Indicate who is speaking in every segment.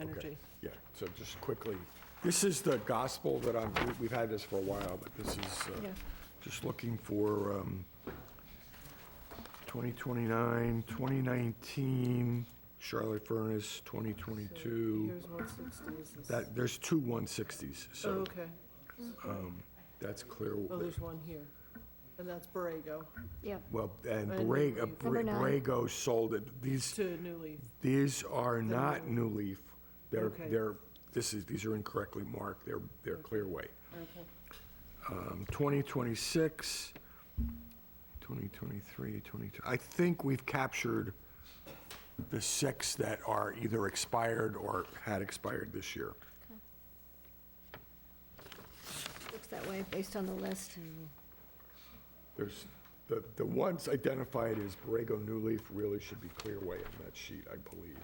Speaker 1: energy.
Speaker 2: Yeah, so just quickly, this is the gospel that I'm, we- we've had this for a while, but this is uh,
Speaker 1: Yeah.
Speaker 2: just looking for um, 2029, 2019, Charlotte Furnace, 2022.
Speaker 1: Here's one sixty is this.
Speaker 2: That, there's two 160s,
Speaker 1: Oh,
Speaker 2: so um,
Speaker 1: okay.
Speaker 2: that's clear.
Speaker 1: Oh, there's one here. And that's Borrego
Speaker 3: Yep.
Speaker 2: Well, and
Speaker 1: And
Speaker 2: Borrego,
Speaker 1: Number
Speaker 2: Borre-
Speaker 3: nine.
Speaker 2: Borrego sold it. These,
Speaker 1: to New Leaf.
Speaker 2: these are not New Leaf. They're,
Speaker 1: Okay.
Speaker 2: they're, this is, these are incorrectly marked. They're, they're Clearway.
Speaker 1: Okay.
Speaker 2: um, 2026, 2023, 22, I think we've captured the six that are either expired or had expired this year.
Speaker 3: Looks that way based on the list.
Speaker 2: There's, the, the ones identified as Borrego New Leaf really should be Clearway on that sheet, I believe.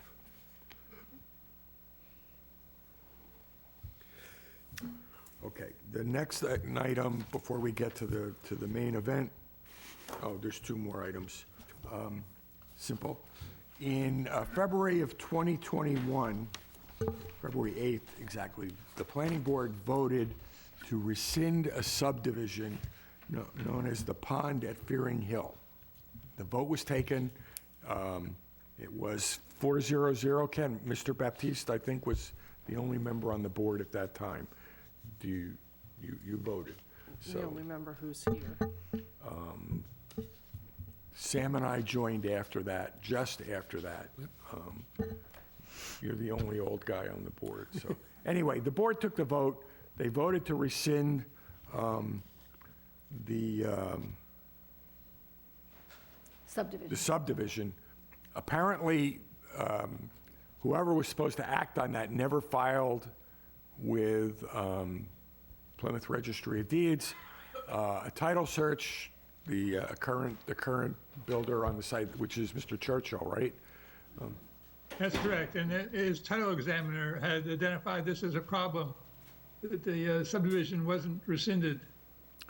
Speaker 2: Okay, the next item, before we get to the, to the main event, oh, there's two more items. Um, Simple. In uh, February of 2021, February 8th, exactly, the planning board voted to rescind a subdivision kno- known as the Pond at Fearing Hill. The vote was taken, um, it was 400, Ken, Mr. Baptiste, I think, was the only member on the board at that time. Do you, you, you voted,
Speaker 1: We
Speaker 2: so.
Speaker 1: don't remember who's here.
Speaker 2: Sam and I joined after that, just after that. Um, You're the only old guy on the board, so. Anyway, the board took the vote. They voted to rescind um, the, um, the
Speaker 3: Subdivision.
Speaker 2: subdivision. Apparently, um, whoever was supposed to act on that never filed with um, Plymouth Registry of Deeds. Uh, A title search, the uh, current, the current builder on the site, which is Mr. Churchill, right?
Speaker 4: That's correct, and it- his title examiner had identified this as a problem, that the uh, subdivision wasn't rescinded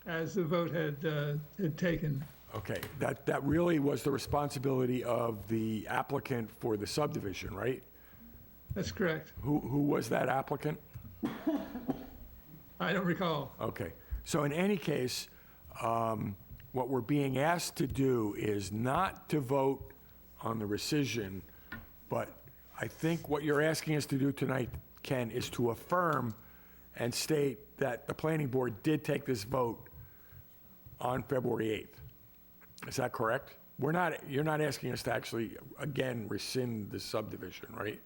Speaker 4: as the vote had, uh, had taken.
Speaker 2: Okay, that, that really was the responsibility of the applicant for the subdivision, right?
Speaker 4: That's correct.
Speaker 2: Who, who was that applicant?
Speaker 4: I don't recall.
Speaker 2: Okay, so in any case, um, what we're being asked to do is not to vote on the rescission, but I think what you're asking us to do tonight, Ken, is to affirm and state that the planning board did take this vote on February 8th. Is that correct? We're not, you're not asking us to actually, again, rescind the subdivision, right?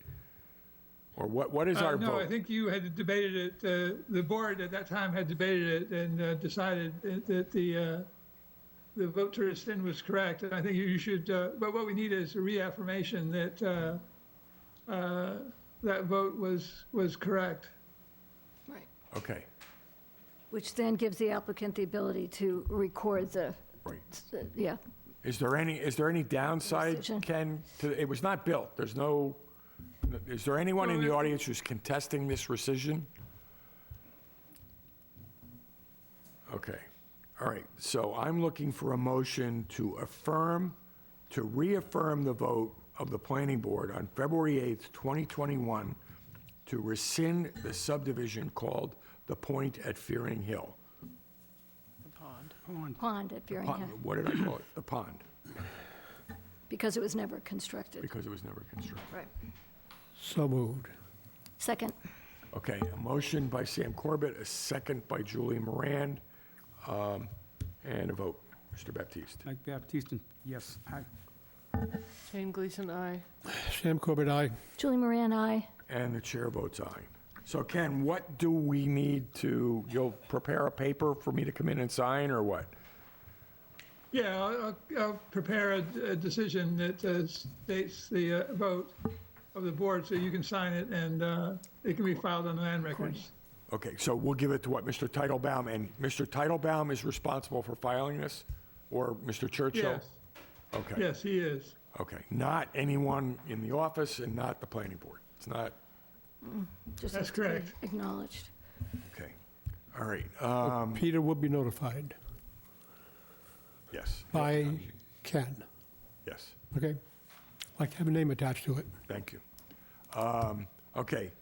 Speaker 2: Or what, what is
Speaker 4: Uh,
Speaker 2: our vote?
Speaker 4: No, I think you had debated it, uh, the board at that time had debated it and uh, decided that- that the, uh, the vote to rescind was correct, and I think you should, uh, but what we need is a reaffirmation that uh, uh, that vote was, was correct.
Speaker 3: Right.
Speaker 2: Okay,
Speaker 3: Which then gives the applicant the ability to record the,
Speaker 2: right.
Speaker 3: yeah,
Speaker 2: Is there any, is there any downside,
Speaker 3: Decision.
Speaker 2: Ken? to- It was not built, there's no, is there anyone in the audience who's contesting this rescission? Okay, all right, so I'm looking for a motion to affirm, to reaffirm the vote of the planning board on February 8th, 2021, to rescind the subdivision called The Point at Fearing Hill.
Speaker 1: The pond.
Speaker 3: pond at Fearing Hill,
Speaker 2: Pond- What did I call it? The pond,
Speaker 3: because it was never constructed.
Speaker 2: because it was never constructed.
Speaker 3: Right.
Speaker 5: So moved.
Speaker 3: Second,
Speaker 2: Okay, a motion by Sam Corbett, a second by Julie Moran, um, and a vote, Mr. Baptiste.
Speaker 6: Mike Baptiste, yes, aye.
Speaker 1: Jane Gleason, aye.
Speaker 5: Sam Corbett, aye.
Speaker 3: Julie Moran, aye.
Speaker 2: And the chair votes aye. So Ken, what do we need to, you'll prepare a paper for me to come in and sign, or what?
Speaker 4: Yeah, I'll, I'll- I'll prepare a, a decision that uh, states the uh, vote of the board, so you can sign it, and uh, it can be filed on the land records.
Speaker 2: Okay, so we'll give it to what, Mr. Titlebaum, and Mr. Titlebaum is responsible for filing this? Or Mr. Churchill?
Speaker 4: Yes,
Speaker 2: Okay,
Speaker 4: yes, he is.
Speaker 2: okay. Not anyone in the office and not the planning board. It's not,
Speaker 3: Just has
Speaker 4: That's
Speaker 3: to be
Speaker 4: correct.
Speaker 3: Acknowledged.
Speaker 2: okay. All right, um,
Speaker 5: Peter will be notified
Speaker 2: yes,
Speaker 5: by Ken,
Speaker 2: yes.
Speaker 5: okay? Like to have a name attached to it.
Speaker 2: Thank you. Um, Okay.